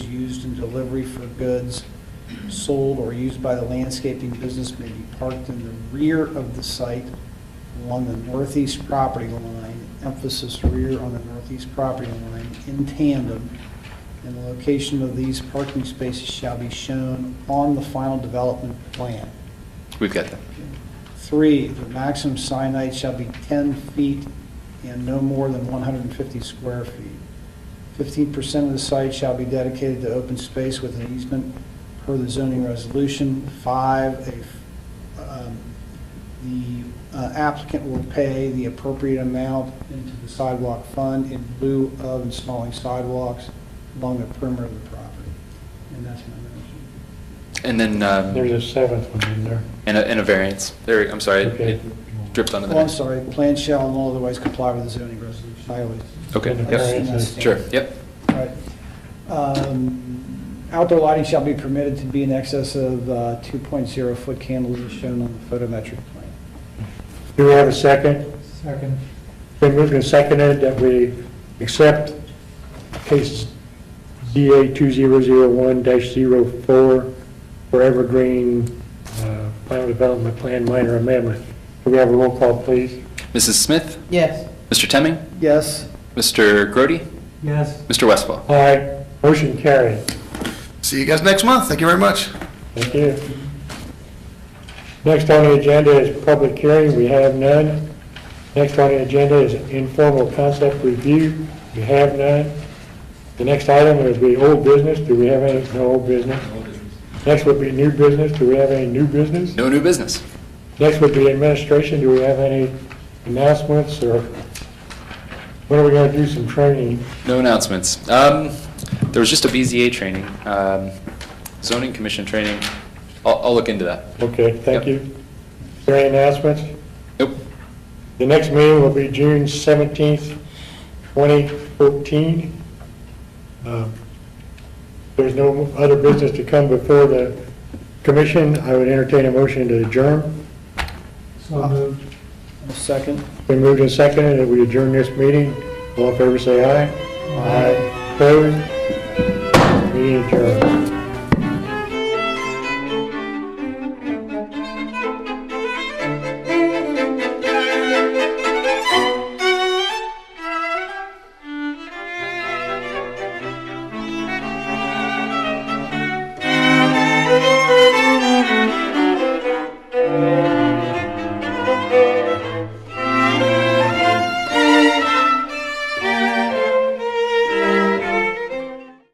used in delivery for goods sold or used by the landscaping business may be parked in the rear of the site along the northeast property line, emphasis rear on the northeast property line, in tandem, and the location of these parking spaces shall be shown on the final development plan. We've got that. Three, the maximum sign height shall be 10 feet and no more than 150 square feet. 15% of the site shall be dedicated to open space with an easement per the zoning resolution. Five, a- um, the uh, applicant will pay the appropriate amount into the sidewalk fund in lieu of installing sidewalks along the perimeter of the property. And that's my motion. And then, um, There's a seventh one in there. and a, and a variance. There, I'm sorry, it- Okay. it dripped onto the Oh, I'm next. sorry, plan shall in all other ways comply with the zoning resolution. I always. Okay, And a yep, variance is- sure, yep. Right. Um, Outdoor lighting shall be permitted to be in excess of uh, 2.0 foot candles as shown on the photometric plan. Do we have a second? Second. Been moved and seconded that we accept case ZA 2001-04 for Evergreen uh, Final Development Plan Minor Amendment. Do we have a roll call, please? Mrs. Smith, Yes. Mr. Temming, Yes, Mr. Grody, Yes. Mr. Westfall. Aye. Motion carried. See you guys next month. Thank you very much. Thank you. Next on the agenda is public hearing, we have none. Next on the agenda is informal concept review, we have none. The next item is the old business, do we have any, no old business? Next would be new business, do we have any new business? No new business. Next would be administration, do we have any announcements, or when are we gonna do some training? No announcements. Um, there was just a BZA training, um, zoning commission training. I'll, I'll look into that. Okay, thank Yep. you. Is there any announcements? Nope. The next meeting will be June seventeenth, twenty fourteen. Uh, There's no other business to come before the commission. I would entertain a motion to adjourn. So moved. a second. Been moved and seconded that we adjourn this meeting. All in favor, say aye. Aye. Opposed?